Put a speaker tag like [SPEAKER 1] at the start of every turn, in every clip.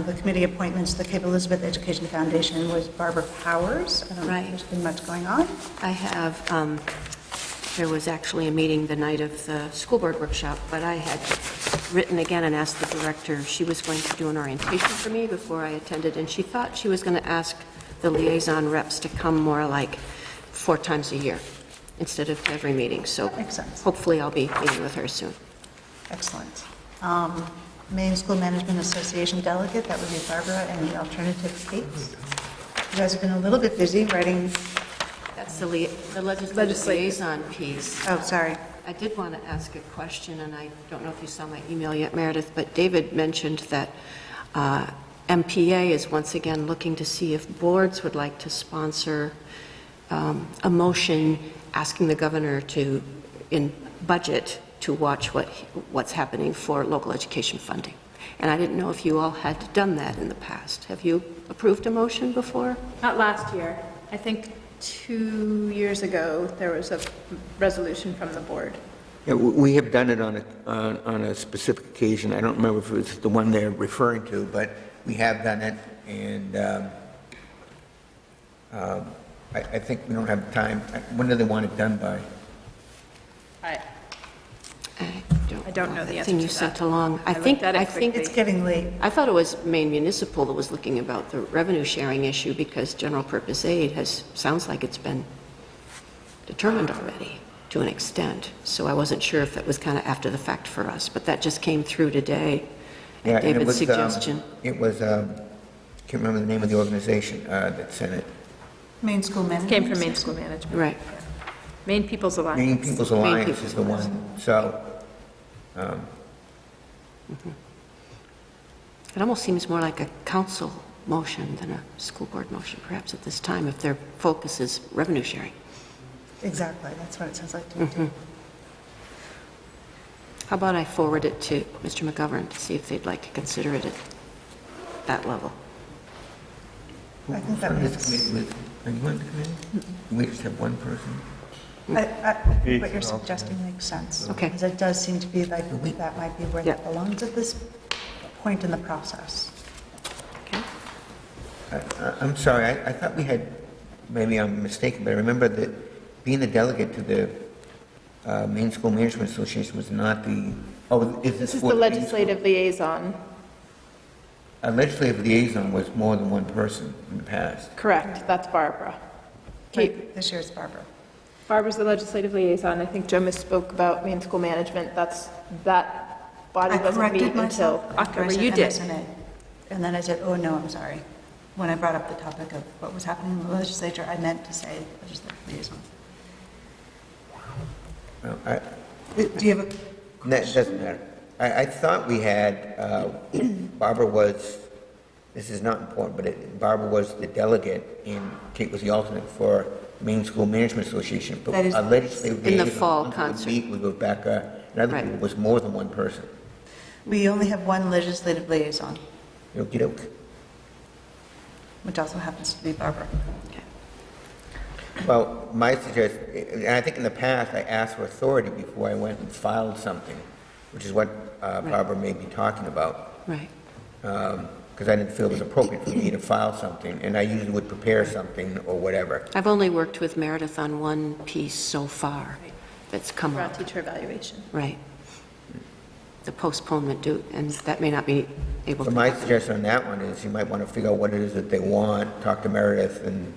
[SPEAKER 1] The committee appointments, the Cape Elizabeth Education Foundation was Barbara Powers. I don't know if
[SPEAKER 2] Right.
[SPEAKER 1] there's been much going on.
[SPEAKER 2] I have, um, there was actually a meeting the night of the school board workshop, but I had written again and asked the director, if she was going to do an orientation for me before I attended, and she thought she was going to ask the liaison reps to come more like four times a year instead of every meeting, so
[SPEAKER 1] That makes sense.
[SPEAKER 2] hopefully I'll be meeting with her soon.
[SPEAKER 1] Excellent. Um, Maine School Management Association delegate, that would be Barbara, and the alternative Kate. You guys have been a little bit busy writing,
[SPEAKER 2] That's the lia- the legislative liaison piece.
[SPEAKER 1] oh, sorry.
[SPEAKER 2] I did want to ask a question, and I don't know if you saw my email yet, Meredith, but David mentioned that uh, MPA is once again looking to see if boards would like to sponsor um, a motion asking the governor to, in budget, to watch what, what's happening for local education funding. And I didn't know if you all had done that in the past. Have you approved a motion before?
[SPEAKER 3] Not last year. I think two years ago, there was a resolution from the board.
[SPEAKER 4] Yeah, w- we have done it on a, on on a specific occasion. I don't remember if it was the one they're referring to, but we have done it, and um, um, I, I think we don't have time. When do they want it done by?
[SPEAKER 3] I,
[SPEAKER 2] I
[SPEAKER 3] I don't know the
[SPEAKER 2] That
[SPEAKER 3] answer
[SPEAKER 2] thing
[SPEAKER 3] to
[SPEAKER 2] you
[SPEAKER 3] that.
[SPEAKER 2] sent along. I
[SPEAKER 3] I looked
[SPEAKER 2] think,
[SPEAKER 3] at it
[SPEAKER 2] I think
[SPEAKER 1] It's getting late.
[SPEAKER 2] I thought it was Maine Municipal that was looking about the revenue sharing issue because general purpose aid has, sounds like it's been determined already to an extent. So I wasn't sure if that was kind of after the fact for us, but that just came through today
[SPEAKER 4] Yeah,
[SPEAKER 2] at
[SPEAKER 4] and it
[SPEAKER 2] David's
[SPEAKER 4] was, um,
[SPEAKER 2] suggestion.
[SPEAKER 4] It was, um, can't remember the name of the organization uh, that sent it.
[SPEAKER 1] Maine School Management.
[SPEAKER 3] Came from Maine School Management.
[SPEAKER 2] Right.
[SPEAKER 3] Maine People's
[SPEAKER 4] Maine
[SPEAKER 3] Alliance.
[SPEAKER 4] People's
[SPEAKER 2] Maine
[SPEAKER 4] Alliance
[SPEAKER 2] People's
[SPEAKER 4] is the one, so,
[SPEAKER 2] It almost seems more like a council motion than a school board motion perhaps at this time if their focus is revenue sharing.
[SPEAKER 1] Exactly, that's what it sounds like to me, too.
[SPEAKER 2] How about I forward it to Mr. McGovern to see if they'd like to consider it at that level?
[SPEAKER 1] I think that
[SPEAKER 4] This
[SPEAKER 1] makes-
[SPEAKER 4] committee was- anyone on the committee? We just have one person.
[SPEAKER 1] I- I- I think What you're suggesting makes sense.
[SPEAKER 2] Okay.
[SPEAKER 1] Because it does seem to be like, that might be where that
[SPEAKER 2] Yeah.
[SPEAKER 1] belongs at this point in the process.
[SPEAKER 2] Okay?
[SPEAKER 4] I- I- Uh, I'm sorry, I I thought we had, maybe I'm mistaken, but I remember that being the delegate to the uh, Maine School Management Association was not the, oh, is this
[SPEAKER 3] This is
[SPEAKER 4] for
[SPEAKER 3] the
[SPEAKER 4] Maine
[SPEAKER 3] legislative liaison.
[SPEAKER 4] School- A legislative liaison was more than one person in the past.
[SPEAKER 3] Correct, that's Barbara. Kate,
[SPEAKER 1] Right, This year's Barbara.
[SPEAKER 3] Barbara's the legislative liaison. I think Joe misspoke about Maine School Management. That's, that body
[SPEAKER 1] I
[SPEAKER 3] doesn't meet
[SPEAKER 1] corrected myself.
[SPEAKER 3] until
[SPEAKER 1] after I
[SPEAKER 3] October.
[SPEAKER 1] said
[SPEAKER 3] You did.
[SPEAKER 1] MSNA. And then I said, oh, no, I'm sorry. When I brought up the topic of what was happening in the legislature, I meant to say legislative liaison.
[SPEAKER 4] Well, I-
[SPEAKER 1] Do do you have a
[SPEAKER 4] That doesn't matter. I I thought we had, uh, Barbara was, this is not important, but it- Barbara was the delegate and Kate was the alternate for Maine School Management Association. But
[SPEAKER 1] That is-
[SPEAKER 4] a legislative
[SPEAKER 2] In the
[SPEAKER 4] liaison,
[SPEAKER 2] fall
[SPEAKER 4] once it would
[SPEAKER 2] concert.
[SPEAKER 4] meet, We were back, uh, and other
[SPEAKER 2] Right.
[SPEAKER 4] people was more than one person.
[SPEAKER 1] We only have one legislative liaison,
[SPEAKER 4] Okey-doke.
[SPEAKER 1] which also happens to be Barbara.
[SPEAKER 4] Well, my suggest, and I think in the past, I asked for authority before I went and filed something, which is what uh,
[SPEAKER 2] Right.
[SPEAKER 4] Barbara may be talking about.
[SPEAKER 2] Right.
[SPEAKER 4] because um, I didn't feel it was appropriate for me to file something, and I usually would prepare something or whatever.
[SPEAKER 2] I've only worked with Meredith on one piece so far that's come
[SPEAKER 3] Around
[SPEAKER 2] up,
[SPEAKER 3] teacher evaluation.
[SPEAKER 2] right? The postponement due, and that may not be able
[SPEAKER 4] So
[SPEAKER 2] to.
[SPEAKER 4] my suggestion on that one is you might want to figure out what it is that they want, talk to Meredith, and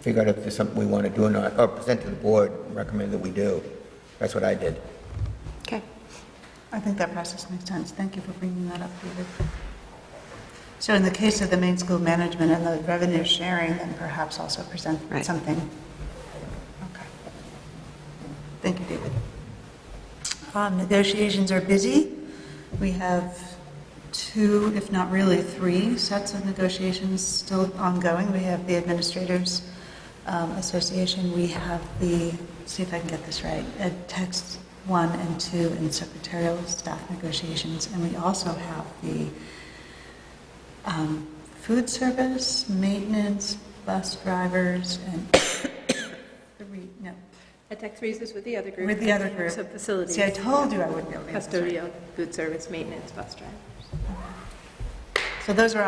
[SPEAKER 4] figure out if there's something we want to do or not, or present to the board, recommend that we do. That's what I did.
[SPEAKER 2] Okay.
[SPEAKER 1] I think that process makes sense. Thank you for bringing that up, David. So in the case of the main school management and the revenue sharing, then perhaps also present
[SPEAKER 2] Right.
[SPEAKER 1] something. Okay. Thank you, David. Um, Negotiations are busy. We have two, if not really three, sets of negotiations still ongoing. We have the Administrators um, Association, we have the, see if I can get this right, Ed Text 1 and 2 and secretarial staff negotiations, and we also have the um, food service, maintenance, bus drivers, and three, no,
[SPEAKER 3] At Tech Threes is with the other group.
[SPEAKER 1] with the other group.
[SPEAKER 3] So facilities.
[SPEAKER 1] See, I told you I wouldn't be able to. answer.
[SPEAKER 3] Custodial, food service, maintenance, bus drivers.
[SPEAKER 1] So those are